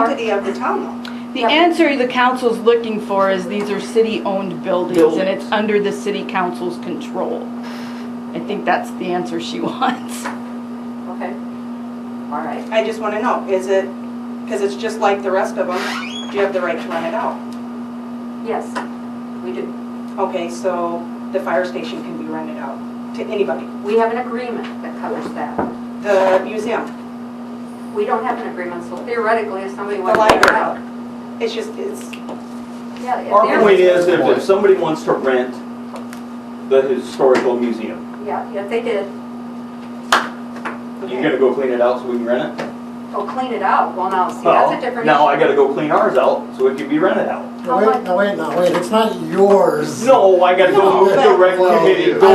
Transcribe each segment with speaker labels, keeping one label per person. Speaker 1: quantity of the town hall.
Speaker 2: The answer the council's looking for is these are city-owned buildings and it's under the city council's control. I think that's the answer she wants.
Speaker 3: Okay, all right.
Speaker 1: I just want to know, is it, because it's just like the rest of them, do you have the right to rent it out?
Speaker 3: Yes, we do.
Speaker 1: Okay, so the fire station can be rented out to anybody.
Speaker 3: We have an agreement that covers that.
Speaker 1: The museum,
Speaker 3: We don't have an agreement, so theoretically, if somebody
Speaker 1: the
Speaker 3: wants to rent it
Speaker 1: library,
Speaker 3: out.
Speaker 1: it's just, it's,
Speaker 3: Yeah, if
Speaker 4: Our
Speaker 3: they're-
Speaker 4: point is, if, if somebody wants to rent the historical museum,
Speaker 3: Yeah, if they did,
Speaker 4: you gonna go clean it out so we can rent it?
Speaker 3: oh, clean it out, well, now, see, that's a
Speaker 4: Well,
Speaker 3: different.
Speaker 4: Oh, now I
Speaker 3: issue.
Speaker 4: gotta go clean ours out so it can be rented out.
Speaker 3: How
Speaker 5: No, wait,
Speaker 3: much-
Speaker 5: no, wait, no, wait, it's not yours.
Speaker 4: No, I gotta
Speaker 1: No,
Speaker 4: go move the
Speaker 1: but-
Speaker 4: rec
Speaker 5: Well,
Speaker 4: committee,
Speaker 5: I- I know,
Speaker 4: go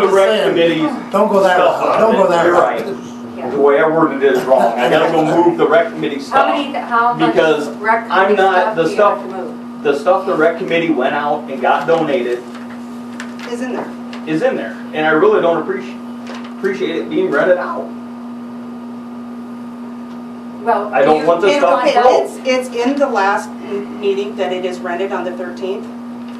Speaker 4: move the
Speaker 5: just
Speaker 4: rec
Speaker 5: saying.
Speaker 4: committee's
Speaker 5: Don't go that
Speaker 4: stuff on
Speaker 5: route, don't
Speaker 4: it.
Speaker 5: go that
Speaker 4: You're
Speaker 5: route.
Speaker 4: right. The
Speaker 3: Yeah.
Speaker 4: way I worded it is wrong. I gotta go move the rec committee
Speaker 3: How
Speaker 4: stuff.
Speaker 3: many, how much
Speaker 4: Because
Speaker 3: rec
Speaker 4: I'm
Speaker 3: committee
Speaker 4: not-
Speaker 3: stuff
Speaker 4: the
Speaker 3: do you have
Speaker 4: stuff-
Speaker 3: to move?
Speaker 4: The stuff the rec committee went out and got donated
Speaker 1: is in there.
Speaker 4: is in there, and I really don't appreciate, appreciate it being rented out.
Speaker 3: Well,
Speaker 4: I
Speaker 3: do
Speaker 4: don't
Speaker 3: you-
Speaker 4: want the
Speaker 3: do you
Speaker 4: stuff
Speaker 3: want
Speaker 1: Okay,
Speaker 4: broke.
Speaker 3: that-
Speaker 1: it's, it's in the last m- meeting that it is rented on the 13th.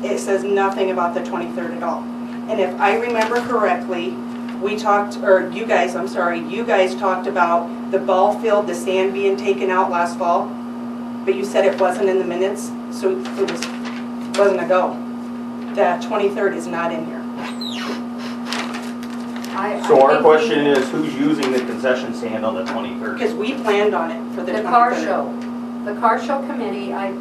Speaker 1: It says nothing about the 23rd at all. And if I remember correctly, we talked, or you guys, I'm sorry, you guys talked about the ball field, the sand being taken out last fall, but you said it wasn't in the minutes, so it was, wasn't a go. The 23rd is not in here.
Speaker 3: I- I
Speaker 4: So
Speaker 3: think
Speaker 4: our
Speaker 3: we-
Speaker 4: question is, who's using the concession stand on the 23rd?
Speaker 1: Because we planned on it for the 23rd.
Speaker 3: The car show, the car show committee, I,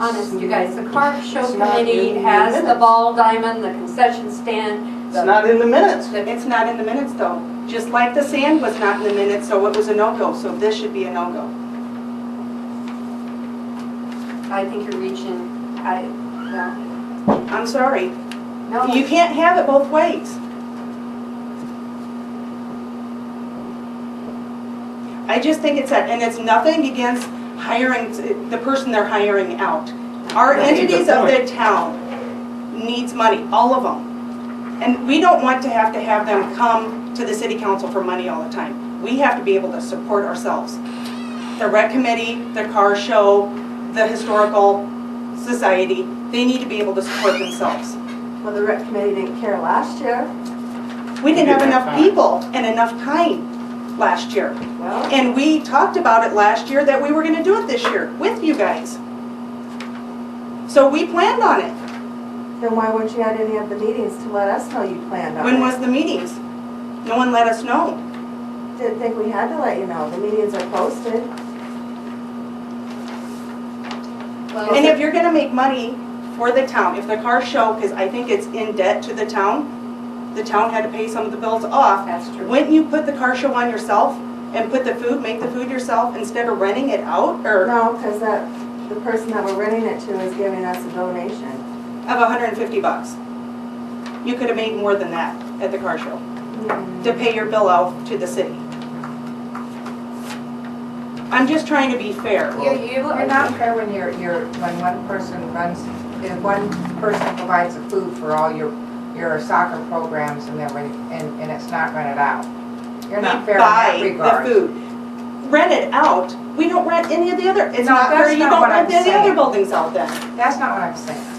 Speaker 3: honest, you guys, the car show committee has the ball diamond, the concession stand.
Speaker 4: It's not in the minutes.
Speaker 1: It's not in the minutes though, just like the sand was not in the minutes, so it was a no-go, so this should be a no-go.
Speaker 3: I think you're reaching, I, no,
Speaker 1: I'm sorry.
Speaker 3: no.
Speaker 1: You can't have it both ways. I just think it's that, and it's nothing against hiring, the person they're hiring out. Our
Speaker 4: Right, good
Speaker 1: entities of the
Speaker 4: point.
Speaker 1: town needs money, all of them. And we don't want to have to have them come to the city council for money all the time. We have to be able to support ourselves. The rec committee, the car show, the historical society, they need to be able to support themselves.
Speaker 6: Well, the rec committee didn't care last year.
Speaker 1: We didn't have enough people and enough time last year.
Speaker 3: Well,
Speaker 1: And we talked about it last year that we were gonna do it this year with you guys. So we planned on it.
Speaker 6: Then why weren't you at any of the meetings to let us know you planned on it?
Speaker 1: When was the meetings? No one let us know.
Speaker 6: Didn't think we had to let you know. The meetings are posted.
Speaker 3: well,
Speaker 1: And if you're gonna make money for the town, if the car show, because I think it's in debt to the town, the town had to pay some of the bills off.
Speaker 3: That's true.
Speaker 1: Wouldn't you put the car show on yourself and put the food, make the food yourself instead of renting it out or
Speaker 6: No, because that, the person that we're renting it to is giving us a donation.
Speaker 1: of 150 bucks? You could have made more than that at the car show.
Speaker 7: Mm-hmm.
Speaker 1: to pay your bill out to the city. I'm just trying to be fair.
Speaker 7: You, you are not fair when you're, you're, when one person runs, if one person provides the food for all your, your soccer programs and then, when- and, and it's not rented out. You're not fair in that
Speaker 1: We buy
Speaker 7: regard.
Speaker 1: the food. Rent it out, we don't rent any of the other, it's
Speaker 7: No,
Speaker 1: not fair,
Speaker 7: that's
Speaker 1: you
Speaker 7: not
Speaker 1: don't
Speaker 7: what
Speaker 1: rent
Speaker 7: I'm
Speaker 1: any other
Speaker 7: saying.
Speaker 1: buildings out then.
Speaker 7: That's not what I'm saying.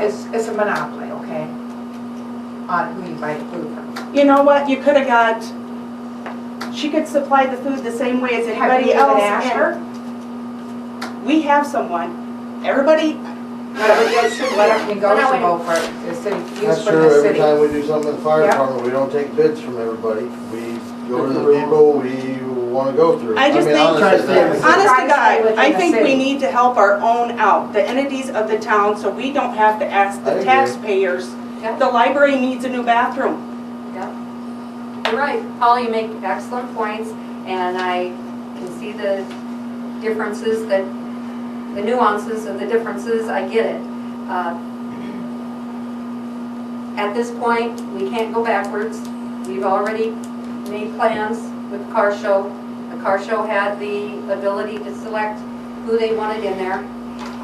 Speaker 7: It's, it's a monopoly, okay? On who you buy the food from.
Speaker 1: You know what, you could have got, she could supply the food the same way as
Speaker 7: Have you
Speaker 1: anybody
Speaker 7: even
Speaker 1: else.
Speaker 7: asked
Speaker 1: and-
Speaker 7: her?
Speaker 1: We have someone, everybody,
Speaker 7: Whatever, it should be negotiable for the city, use
Speaker 8: That's
Speaker 7: for
Speaker 8: true,
Speaker 7: the
Speaker 8: every
Speaker 7: city.
Speaker 8: time we do something in the fire
Speaker 7: Yeah.
Speaker 8: department, we don't take bids from everybody. We go to the people we wanna go through.
Speaker 1: I just
Speaker 8: mean,
Speaker 1: think-
Speaker 8: honestly, that's-
Speaker 7: Try
Speaker 1: honest to
Speaker 7: to stay
Speaker 1: God,
Speaker 7: within
Speaker 1: I
Speaker 7: the
Speaker 1: think we
Speaker 7: city.
Speaker 1: need to help our own out, the entities of the town, so we don't have to ask
Speaker 8: I
Speaker 1: the
Speaker 8: agree.
Speaker 1: taxpayers.
Speaker 3: Yeah.
Speaker 1: The library needs a new bathroom.
Speaker 3: You're right, Paul, you make excellent points, and I can see the differences that, the nuances of the differences, I get it. Uh, At this point, we can't go backwards. We've already made plans with the car show. The car show had the ability to select who they wanted in there.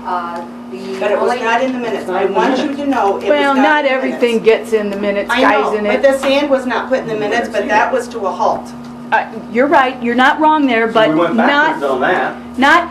Speaker 3: Uh, the
Speaker 1: But it was
Speaker 3: only-
Speaker 1: not in the minutes. I want you to know it was not in the minutes.
Speaker 2: Well, not everything gets in the minutes,
Speaker 1: I
Speaker 2: guys,
Speaker 1: know,
Speaker 2: and
Speaker 1: but
Speaker 2: it,
Speaker 1: the sand was not put in the minutes, but that was to a halt.
Speaker 2: uh, you're right, you're not wrong there,
Speaker 4: So
Speaker 2: but
Speaker 4: we went backwards
Speaker 2: not,
Speaker 4: on that.
Speaker 2: not